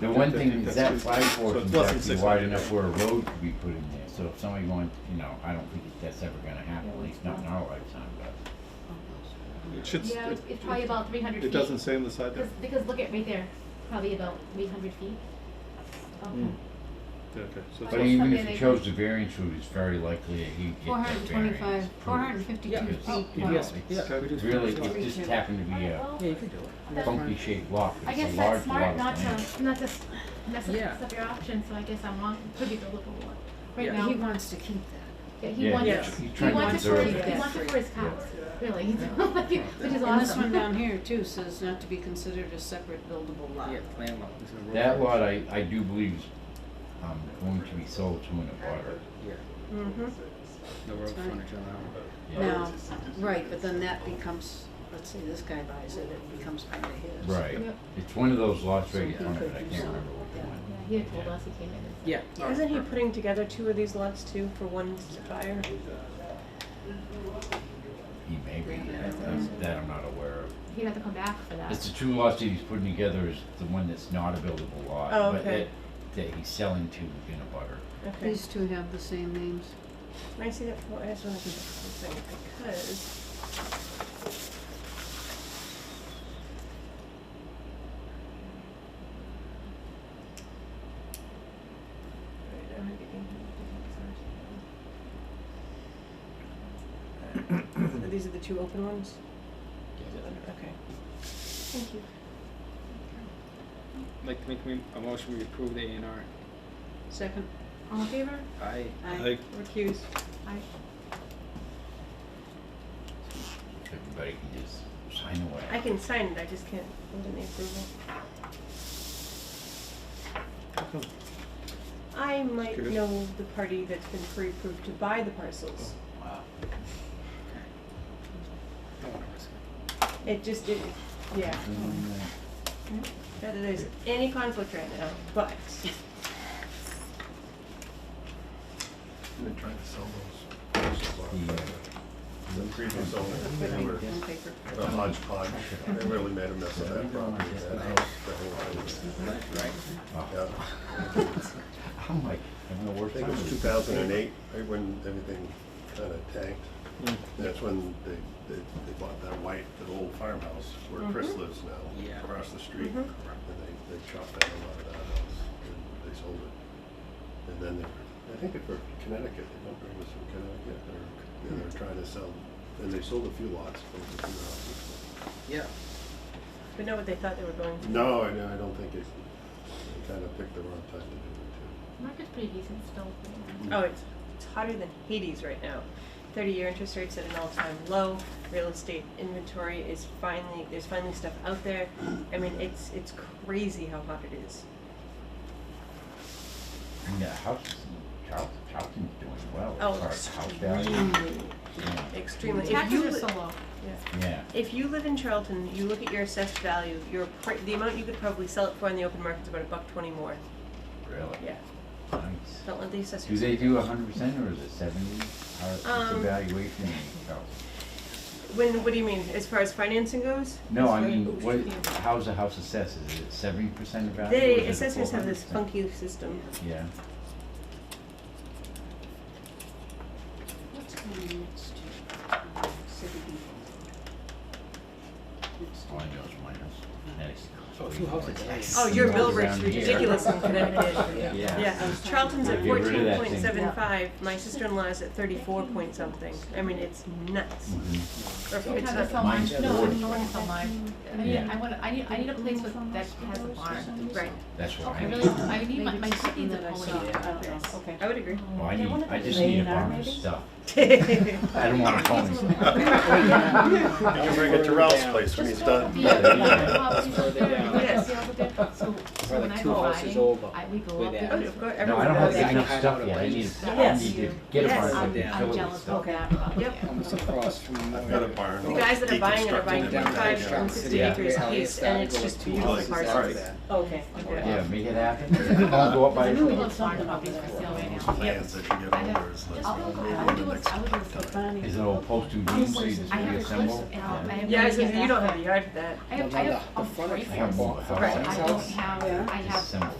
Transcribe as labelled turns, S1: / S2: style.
S1: The one
S2: I
S1: thing
S2: think
S1: is that
S2: that's
S1: five
S2: good. So
S1: fours
S2: it's less
S1: is
S2: than
S1: actually
S2: 600.
S1: wide enough where a road could be put in there, so if somebody going, you know, I don't think that's ever gonna happen, at least not in our lifetime, but.
S2: It should, s-
S3: Yeah,
S2: it,
S3: it's it's probably about three hundred feet.
S2: it doesn't say on the side there.
S3: Because, because look at right there, probably about three hundred feet.
S2: Mm. Yeah, Okay, so it's
S1: But
S3: But that's
S2: less,
S1: even
S3: something
S1: if
S3: they
S1: he
S3: could-
S1: chose the variance route, it's very likely that he'd
S4: Four
S1: get
S4: hundred
S1: that
S4: and
S1: variance.
S4: twenty-five, four hundred and
S5: Yeah,
S4: fifty-two
S1: Because,
S4: feet.
S1: you
S3: Oh,
S4: wide.
S1: know,
S5: Yes,
S1: it's
S5: yeah, we just-
S1: really,
S5: it's
S1: it just happened to be a
S3: Well,
S5: Yeah, you could do it.
S3: that's-
S1: funky shaped lot,
S3: I
S1: but
S3: guess
S1: it's a large
S3: that's smart
S1: lot
S3: not
S1: of land.
S3: to, not to s- mess up-
S5: Yeah.
S3: mess up your options, so I guess I'm wrong, could be the local one. Right
S5: Yeah.
S4: He
S3: now,
S4: wants to keep that.
S3: yeah, he
S1: Yeah,
S3: wants,
S5: Yeah.
S1: he's tr- he's
S3: he
S1: trying to
S3: wants it for,
S1: preserve
S3: his- he
S1: it.
S3: wants it for his cows, really, which is awesome.
S4: And this one uh, down here too says not to be considered a separate buildable lot.
S5: Yeah, landlocked. It's in a row.
S1: That lot, I, I do believe is, um, going to be sold to an abutter.
S5: Yeah,
S4: Mm-hmm.
S5: no road
S4: Sorry.
S5: frontage on that one.
S1: Yeah.
S4: Now, right, but then that becomes, let's say this guy buys it, it becomes part of his.
S1: Right,
S3: Yep.
S1: it's one of those lots right in
S4: So he
S1: front of
S4: could
S1: it, I
S4: do
S1: can't
S4: some.
S1: remember which
S4: Yeah.
S1: one.
S3: Yeah, he had told us, he came in and said.
S5: Yeah. all
S6: Isn't he
S5: right.
S6: putting together two of these lots too for one buyer?
S1: He may be, I- that's- that I'm not aware of.
S3: He'd have to come back for
S6: Ah.
S3: that.
S1: It's the two lots that he's putting together is the one that's not a buildable lot,
S6: Oh,
S1: but that,
S6: okay.
S1: that he's selling to in a butter.
S6: Okay.
S4: These two have the same names.
S6: Can I see that? for- I just want to see something because Wait, I'm getting- Uh, These are the two open ones? Okay. Thank you.
S5: I'd Like to make me- a motion, we approve the A and R.
S4: Second,
S3: All in favor?
S5: Aye.
S4: I,
S6: Recuse.
S3: Aye.
S1: Everybody can just sign away.
S6: I can sign it, I just can't hold any approval.
S2: how come?
S6: I might
S2: Curious.
S6: know the party that's been pre-approved to buy the parcels.
S1: Wow.
S5: Don't wanna risk it.
S6: It just did yeah. Not that there's any conflict right now, but
S7: Been trying to sell those. parcels off,
S1: Yeah.
S7: but The previous owner,
S4: put
S7: they
S4: me
S7: were
S4: on paper.
S7: a hodgepodge. They really made a mess of that property, that house, the whole thing.
S5: Right?
S7: Yeah.
S1: Oh, I'm like, I'm the
S7: I
S1: worst.
S7: think it was two thousand and eight, right when everything kind of tanked.
S2: Mm.
S7: That's when they, they, they bought that white, that old farmhouse where Chris lives
S5: Yeah.
S7: now, across the street. And they, they chopped down a lot of that house and they sold it. And then they, were- I think they were Connecticut, they don't bring this from Connecticut, or, and they're trying to sell, and they sold a few lots, sold a few houses.
S5: Yeah.
S6: but not what they thought they were going to.
S7: No, I, I don't think it, they kind of picked the wrong time to do it
S3: Market's pretty decent still.
S6: Oh, it's it's hotter than Hades right now. Thirty-year interest rates at an all-time low. Real estate inventory is finally there's finally stuff out there. I mean, it's it's crazy how hot it is.
S1: And that house, is- Charles, Charlton's doing well. as
S6: Oh,
S1: far as house value.
S6: extremely,
S1: Yeah.
S6: extremely. If
S4: Tax
S6: you
S4: is
S6: li-
S4: so low.
S1: Yeah,
S6: If you live in Charlton, you look at your assessed value, your pr- the amount you could probably sell it for in the open market is about a buck twenty more.
S1: really.
S6: Yeah,
S1: Nice.
S6: don't let the assessors.
S1: Do they do a hundred percent or is it seventy? How, what's the
S6: Um,
S1: valuation in Charlton?
S6: When, what do you mean, as far as financing goes?
S1: No, I
S4: Sorry,
S1: mean,
S4: oops,
S1: what,
S4: yeah.
S1: how's the house assessed? Is it seventy percent of value? or is
S6: The
S1: it a
S6: assessors have this
S1: 400%?
S6: funky system.
S1: Yeah,
S4: What's going next to, um, city
S1: all
S4: people?
S1: I know is mine is Connecticut.
S5: Oh, two houses, nice.
S6: Oh, your mill
S1: Around
S6: rate's
S1: here.
S6: ridiculous in Connecticut.
S1: Yeah.
S6: Yeah, Charlton's at
S1: Get rid of
S6: fourteen
S1: that
S6: point
S1: thing.
S6: seven five, my sister-in-law's at thirty-four point something, I mean, it's nuts.
S1: Mhm.
S6: Or
S3: Don't
S6: it's
S3: have to
S6: not-
S3: sell mine,
S1: Mine's
S3: no, I
S1: wood.
S3: don't want to sell mine. I mean,
S1: Yeah.
S3: I want, I need, I need a place with, that has a barn.
S6: Right,
S1: That's what
S3: I
S1: I
S3: really, I need my,
S4: Maybe
S3: my
S4: it's
S3: shit needs a
S4: something
S3: pony.
S4: that I saw. I don't know.
S6: okay, I would agree.
S1: Well, I need, I just
S4: Lay
S1: need a
S4: it out,
S1: barn of
S4: maybe?
S1: stuff.
S6: Right,
S1: I don't want a pony.
S7: too. You can bring it to Ralph's place when he's done.
S3: Just throw the beer, the hops, you throw the beer, you
S6: Yes.
S3: throw the beer. So, so when
S5: like
S3: I'm
S5: two houses
S3: riding,
S5: over
S3: I, we go
S5: with
S3: up
S5: that.
S3: there.
S6: of course,
S1: No, I
S6: everyone
S1: don't have
S6: knows
S5: Everyone's got
S1: enough
S5: that.
S1: stuff yet. I need, I
S6: Yes.
S1: need to get a
S6: Yes.
S1: barn so I
S5: Yes.
S1: can fill it with
S3: of
S1: stuff.
S3: that. up
S6: Yep.
S3: there.
S5: Almost across from.
S7: I've got a barn.
S6: The guys that are buying it are buying
S7: Deconstructed in my
S6: 25
S7: backyard.
S6: from 60
S1: Yeah.
S6: acres
S5: Yeah.
S6: each, and it's just beautiful
S7: Yeah.
S6: parcels.
S7: Yeah.
S6: Okay.
S1: Yeah, make it happen. I'll go up by
S4: I knew we
S1: yourself.
S4: did
S3: Farm
S4: something about
S3: properties for
S4: that.
S3: sale right now.
S7: Plans that you
S3: I
S7: get
S3: have-
S7: over is like.
S3: Just,
S4: 아,
S3: I would do a, I would do a flip.
S4: Bonnie.
S1: Is it all posted means so you just
S4: I have a
S1: reassemble?
S3: clip and I'll- I
S1: Yeah.
S3: have-
S6: Yeah, I was gonna say, you don't have a yard for that.
S3: I have, I have
S1: I
S3: a
S1: have more
S3: boyfriend,
S1: houses.
S3: I don't have,
S8: Yeah.
S9: I have
S3: December.